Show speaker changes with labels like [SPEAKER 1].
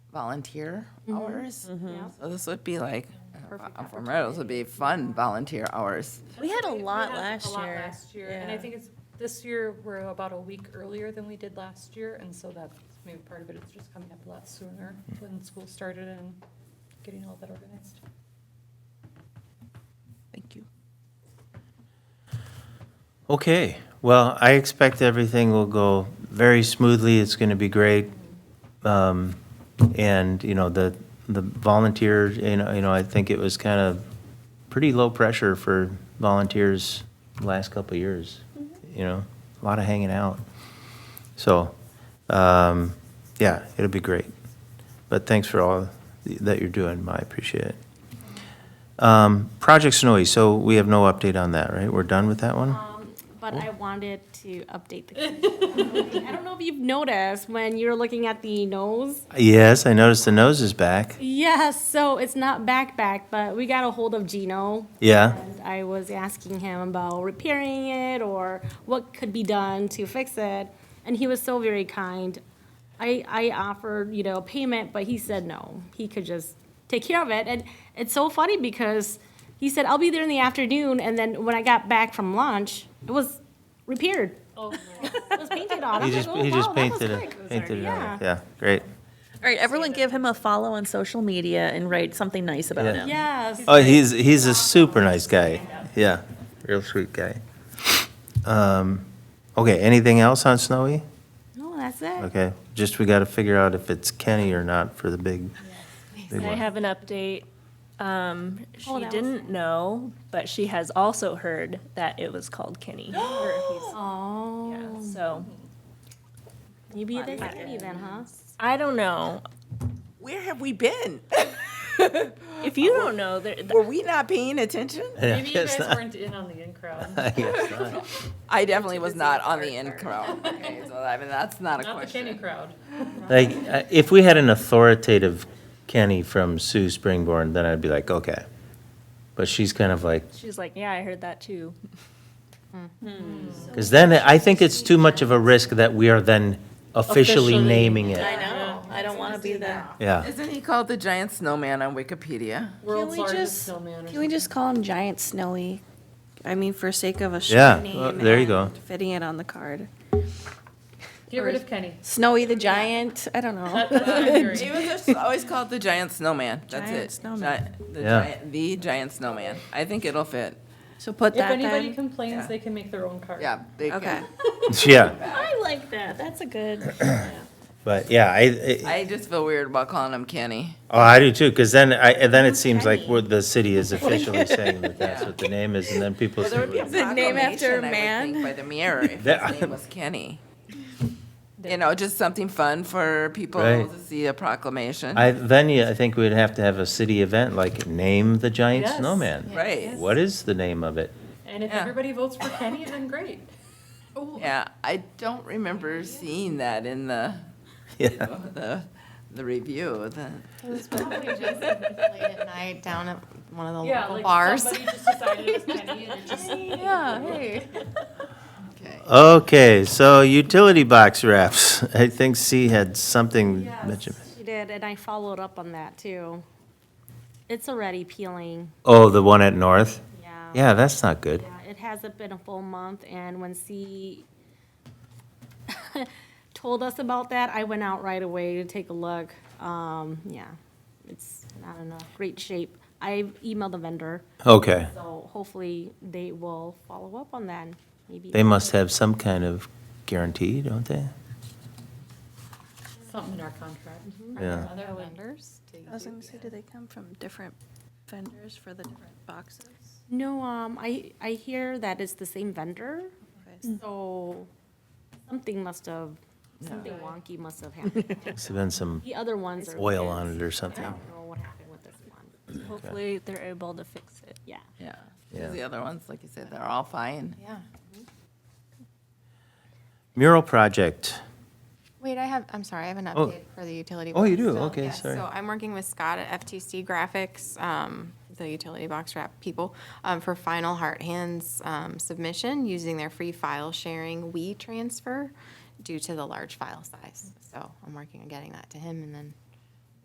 [SPEAKER 1] volunteer hours.
[SPEAKER 2] Yep.
[SPEAKER 1] So this would be like, for Meadows would be fun volunteer hours.
[SPEAKER 3] We had a lot
[SPEAKER 2] had
[SPEAKER 3] last
[SPEAKER 2] A lot
[SPEAKER 3] year.
[SPEAKER 2] last year, and I
[SPEAKER 3] Yeah.
[SPEAKER 2] think it's, this year, we're about a week earlier than we did last year, and so that's maybe part of it, it's just coming up a lot sooner when school started and getting all that organized.
[SPEAKER 1] Thank you.
[SPEAKER 4] Okay, well, I expect everything will go very smoothly. It's going to be great. Um, And, you know, the, the volunteers, you know, you know, I think it was kind of pretty low pressure for volunteers last couple of years, you know, a lot of hanging out. So, um, yeah, it'll be great. But thanks for all that you're doing, I appreciate it. Um, Project Snowy, so we have no update on that, right? We're done with that one?
[SPEAKER 5] But I wanted to update the. community. I don't know if you've noticed when you're looking at the nose.
[SPEAKER 4] Yes, I noticed the nose is back.
[SPEAKER 5] Yes, so it's not back back, but we got a hold of Gino.
[SPEAKER 4] Yeah.
[SPEAKER 5] And I was asking him about repairing it or what could be done to fix it, and he was so very kind. I I offered you know payment, but he said no. He could just take care of it, and it's so funny because he said I'll be there in the afternoon, and then when I got back from lunch, it was repaired.
[SPEAKER 2] Oh,
[SPEAKER 5] It was painted on.
[SPEAKER 4] He
[SPEAKER 5] I'm
[SPEAKER 4] just
[SPEAKER 5] like, oh,
[SPEAKER 4] he just
[SPEAKER 5] wow, that was
[SPEAKER 4] painted
[SPEAKER 5] quick.
[SPEAKER 4] it painted it
[SPEAKER 5] Yeah.
[SPEAKER 4] on. Yeah, great.
[SPEAKER 3] All right, everyone give him a follow on social media and write something nice about
[SPEAKER 4] Yeah.
[SPEAKER 3] him.
[SPEAKER 5] Yes.
[SPEAKER 4] Oh, he's he's a super nice guy. Yeah, real sweet guy. Um, okay. Anything else on Snowy?
[SPEAKER 5] No, that's it.
[SPEAKER 4] Okay, just we got to figure out if it's Kenny or not for the big. big
[SPEAKER 6] I
[SPEAKER 4] one.
[SPEAKER 6] have an update.
[SPEAKER 5] Oh,
[SPEAKER 6] Um, she
[SPEAKER 5] that was
[SPEAKER 6] didn't know, but she has also heard that it was called Kenny. Or if he's- yeah,
[SPEAKER 5] Oh,
[SPEAKER 6] So,
[SPEAKER 5] you be the kitty then, huh?
[SPEAKER 6] I don't know.
[SPEAKER 7] Where have we been?
[SPEAKER 6] If you don't know, there, th-
[SPEAKER 7] Were we not paying attention?
[SPEAKER 2] Maybe you guys weren't in on the in-crowd,
[SPEAKER 4] I guess not.
[SPEAKER 1] I definitely was not on the in crowd. Okay, so I mean, that's not a
[SPEAKER 2] not the Kenny
[SPEAKER 1] question.
[SPEAKER 2] crowd.
[SPEAKER 4] Like uh, if we had an authoritative Kenny from Sue Springborn, then I'd be like, okay. But she's kind of like
[SPEAKER 6] she's like, yeah, I heard that too.
[SPEAKER 4] Because then I think it's too much of a risk that we are then officially naming it.
[SPEAKER 3] I know, I don't want to be that.
[SPEAKER 4] Yeah.
[SPEAKER 1] Isn't he called the giant snowman on Wikipedia?
[SPEAKER 2] World's
[SPEAKER 3] we
[SPEAKER 2] largest
[SPEAKER 3] just-
[SPEAKER 2] snowman or
[SPEAKER 8] Can we just call him Giant Snowy? I mean, for sake of a short
[SPEAKER 4] Yeah,
[SPEAKER 8] name
[SPEAKER 4] well, there you go.
[SPEAKER 8] and Fitting it on the card.
[SPEAKER 2] something. Get rid of Kenny.
[SPEAKER 8] Snowy the Giant. I don't know.
[SPEAKER 2] That's what I'm hearing.
[SPEAKER 1] He was just always called the giant snowman. That's
[SPEAKER 8] Giant
[SPEAKER 1] it.
[SPEAKER 8] snowman.
[SPEAKER 1] Gi- the,
[SPEAKER 4] Yeah.
[SPEAKER 1] giant, the giant snowman. I think it'll fit.
[SPEAKER 8] So put
[SPEAKER 2] If
[SPEAKER 8] that
[SPEAKER 2] anybody
[SPEAKER 8] then.
[SPEAKER 2] complains, they can make their own card.
[SPEAKER 1] Yeah. They can-
[SPEAKER 8] Okay.
[SPEAKER 4] Yeah.
[SPEAKER 3] I like that, that's a good.
[SPEAKER 4] But yeah, I, I
[SPEAKER 1] I just feel weird about calling him Kenny.
[SPEAKER 4] oh, I do too. Because then I and then it seems like we're, the city is officially saying that that's what the name is, and then people say,
[SPEAKER 1] Is it
[SPEAKER 8] name after a man?
[SPEAKER 1] By the mayor, if
[SPEAKER 4] That-
[SPEAKER 1] his name was Kenny. You know, just something fun for people
[SPEAKER 4] Right.
[SPEAKER 1] to see a proclamation.
[SPEAKER 4] I then you, I think we'd have to have a city event like name the giant
[SPEAKER 2] Yes.
[SPEAKER 4] snowman.
[SPEAKER 1] Right.
[SPEAKER 4] What is the name of it?
[SPEAKER 2] And if
[SPEAKER 1] Yeah.
[SPEAKER 2] everybody votes for Kenny, then great.
[SPEAKER 1] Yeah, I don't remember seeing that in the,
[SPEAKER 4] Yeah.
[SPEAKER 1] the, the review. The,
[SPEAKER 9] late at night down at one of the
[SPEAKER 2] Yeah,
[SPEAKER 9] local
[SPEAKER 2] like
[SPEAKER 9] bars.
[SPEAKER 2] somebody just decided it was Kenny and it just
[SPEAKER 9] Yeah, hey.
[SPEAKER 1] okay.
[SPEAKER 4] Okay, so utility box wraps. I think C had something mentioned.
[SPEAKER 5] She did, and I followed up on that too. It's already peeling,
[SPEAKER 4] Oh, the one at North.
[SPEAKER 5] yeah.
[SPEAKER 4] Yeah, that's not good.
[SPEAKER 5] Yeah, It hasn't been a full month, and when C told us about that, I went out right away to take a look. Um, yeah, it's not in a great shape. I emailed the vendor,
[SPEAKER 4] Okay.
[SPEAKER 5] so hopefully they will follow up on that, maybe.
[SPEAKER 4] They must have some kind of guarantee, don't they?
[SPEAKER 2] something in our contract.
[SPEAKER 4] Yeah.
[SPEAKER 2] Other one.
[SPEAKER 8] I was gonna say, do they come from different vendors for the different boxes?
[SPEAKER 5] No, um, I, I hear that it's the same vendor,
[SPEAKER 8] Okay.
[SPEAKER 5] so something must have, something wonky must have happened.
[SPEAKER 4] Must have been some
[SPEAKER 5] The other ones are.
[SPEAKER 4] oil on it or
[SPEAKER 5] I
[SPEAKER 4] something.
[SPEAKER 5] don't know what happened with this one,
[SPEAKER 6] Hopefully, they're able to fix it.
[SPEAKER 5] yeah.
[SPEAKER 1] Yeah.
[SPEAKER 4] Yeah.
[SPEAKER 1] The other ones, like you said, they're all fine.
[SPEAKER 9] Yeah.
[SPEAKER 4] Mural project.
[SPEAKER 9] Wait, I have, I'm sorry, I have an
[SPEAKER 4] Oh.
[SPEAKER 9] update for the utility.
[SPEAKER 4] Oh, you
[SPEAKER 9] box.
[SPEAKER 4] do? Okay,
[SPEAKER 9] Yes,
[SPEAKER 4] sorry.
[SPEAKER 9] So I'm working with Scott at FTC Graphics, um, the utility box wrap people, um, for final Heart Hands um, submission using their free file sharing E WeTransfer due to the large file size. So I'm working on getting that to him and then